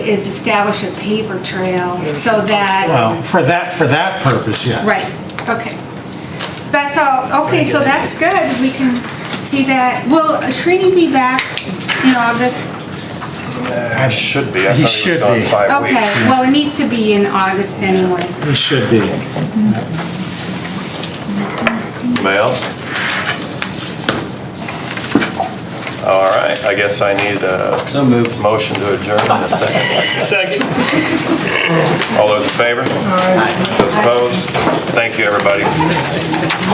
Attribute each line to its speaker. Speaker 1: is establish a paper trail so that,
Speaker 2: Well, for that, for that purpose, yes.
Speaker 1: right, okay. So that's all, okay, so that's good, we can see that. Will Srini be back in August?
Speaker 2: I
Speaker 3: Should be. I
Speaker 2: He
Speaker 3: thought he
Speaker 2: should
Speaker 3: was gone
Speaker 2: be.
Speaker 3: five
Speaker 1: Okay,
Speaker 3: weeks.
Speaker 1: well, it needs to be in August anyway.
Speaker 2: It should be.
Speaker 3: Anybody else? All right, I guess I need a
Speaker 4: So moved.
Speaker 3: motion to adjourn in a second.
Speaker 4: Second.
Speaker 3: All those in favor? Those opposed? Thank you, everybody.